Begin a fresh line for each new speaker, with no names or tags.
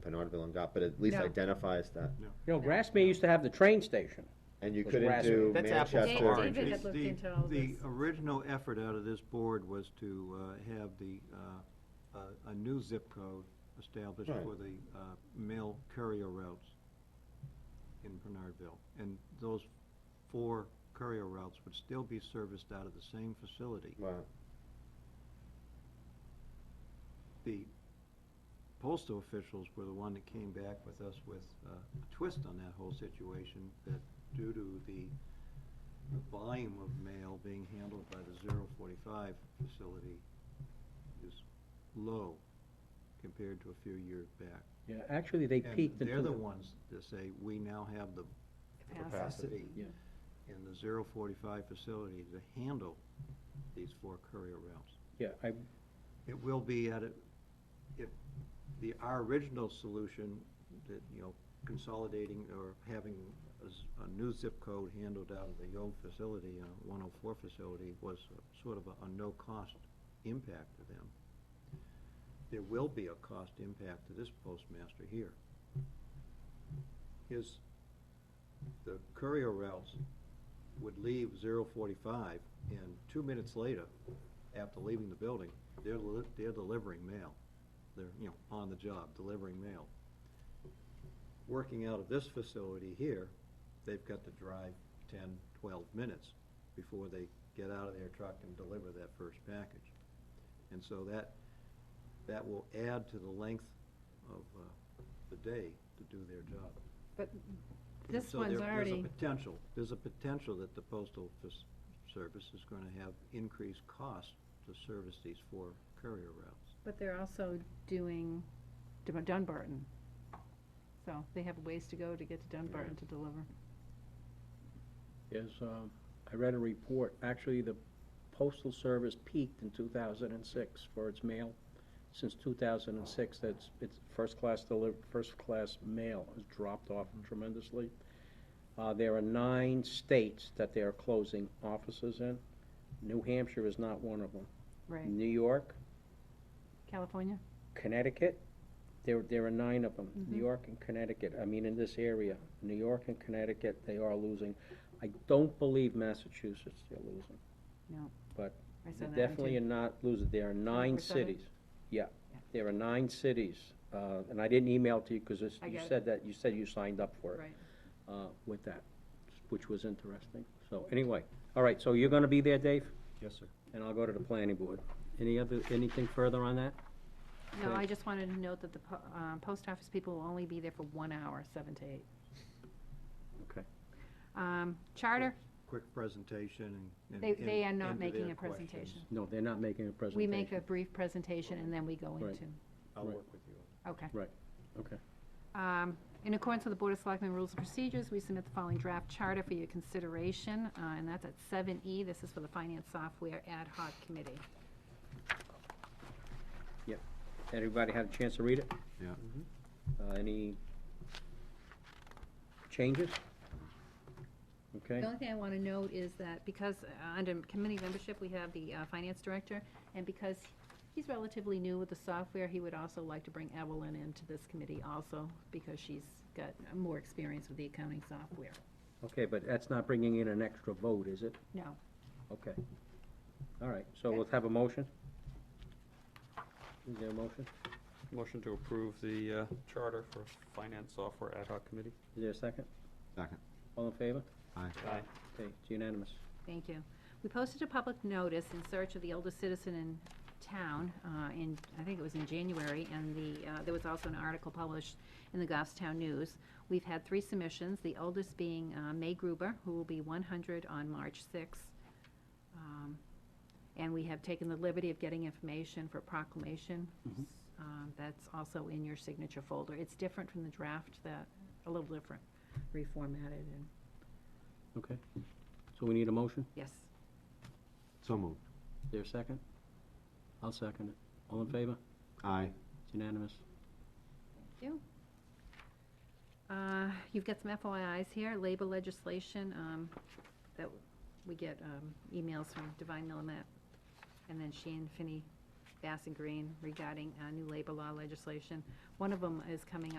Penardville and got, but at least
No.
identifies that.
You know, Grassmere used to have the train station.
And you
Was
couldn't
raspberry.
do
That's apples to
Manchester.
Dave- oranges. David
The-
had looked
the-
into all this.
The original effort out of this board was to uh, have the, uh, a- a new zip code established
Right.
for the uh, mail courier routes in Bernardville. And those four courier routes would still be serviced out of the same facility.
Wow.
The postal officials were the one that came back with us with uh, a twist on that whole situation, that due to the the volume of mail being handled by the 045 facility is low compared to a few years back.
Yeah, actually, they
And
peaked in
They're the
2000.
ones that say, we now have the
Capacity.
capacity
Yeah.
in the 045 facility to handle these four courier routes.
Yeah, I,
It will be at a, if, the, our original solution, that, you know, consolidating or having a, s- a new zip code handled out of the old facility, uh, one oh four facility, was a- sort of a, a no-cost impact to them. There will be a cost impact to this postmaster here. His, the courier routes would leave 045, and two minutes later, after leaving the building, they're, li- they're delivering mail. They're, you know, on the job, delivering mail. Working out of this facility here, they've got to drive 10, 12 minutes before they get out of their truck and deliver that first package. And so that, that will add to the length of uh, the day to do their job.
But
And
this
so
one's
there-
already,
There's a potential, there's a potential that the postal fis- service is gonna have increased costs to service these four courier routes.
but they're also doing Dun- Dunbarton. So they have ways to go to get to Dunbarton to deliver.
is, um, I read a report, actually, the postal service peaked in two thousand and six for its mail. Since two thousand and six, that's, it's first-class deli, first-class mail has dropped off
Mm-hmm.
tremendously. Uh, there are nine states that they are closing offices in. New Hampshire is not one of them.
Right.
New York,
California?
Connecticut, there, there are nine of them, New
Mhm.
York and Connecticut, I mean, in this area, New York and Connecticut, they are losing. I don't believe Massachusetts they're losing.
No.
But
I saw
They
that one,
definitely are
too.
not losing, there are nine
24/7?
cities. Yeah,
Yeah.
there are nine cities, uh, and I didn't email to you, because this,
I
you
got it.
said that, you said you signed up for it.
Right.
Uh, with that, which was interesting, so, anyway, all right, so you're gonna be there, Dave,
Yes, sir.
and I'll go to the planning board. Any other, anything further on that?
No,
Okay.
I just wanted to note that the po- uh, post office people will only be there for one hour, seven to eight.
Okay.
Um, Charter,
Quick presentation and.
they,
and-
they are
and-
not
and to
making
their
a presentation.
questions.
No, they're not making a presentation.
We make a brief presentation and then we go
Right.
into,
I'll
Right.
work with you.
okay.
Okay.
Um, In accordance with the Board of Selectmen Rules and Procedures, we submit the following draft charter for your consideration, uh, and that's at 7E. This is for the Finance Software Ad Hoc Committee.
Everybody had a chance to read it?
Yeah.
Uh, any changes? Okay,
The only thing I want to note is that because uh, under committee membership, we have the uh, Finance Director, and because he's relatively new with the software, he would also like to bring Evelyn into this committee also, because she's got more experience with the accounting software.
okay, but that's not bringing in an extra vote, is it?
No.
Okay. All right, so let's have a motion? Is there a motion?
Motion to approve the uh, charter for Finance Software Ad Hoc Committee.
Is there a second?
Second.
All in favor?
Aye.
Aye.
Okay, it's unanimous.
Thank you. We posted a public notice in search of the oldest citizen in town uh, in, I think it was in January, and the, uh, there was also an article published in the Goffstown News. We've had three submissions, the oldest being uh, May Gruber, who will be 100 on March 6th. Um, And we have taken the liberty of getting information for proclamation.
Mhm.
Um, That's also in your signature folder. It's different from the draft that, a little different, reformatted and,
Okay, so we need a motion?
yes.
So moved.
Is there a second? I'll second it. All in favor?
Aye.
It's unanimous.
you. Uh, You've got some FYIs here, labor legislation, um, that we get um, emails from Divine Millimet, and then Sheen, Finney, Bass and Green regarding uh, new labor law legislation. One of them is coming up.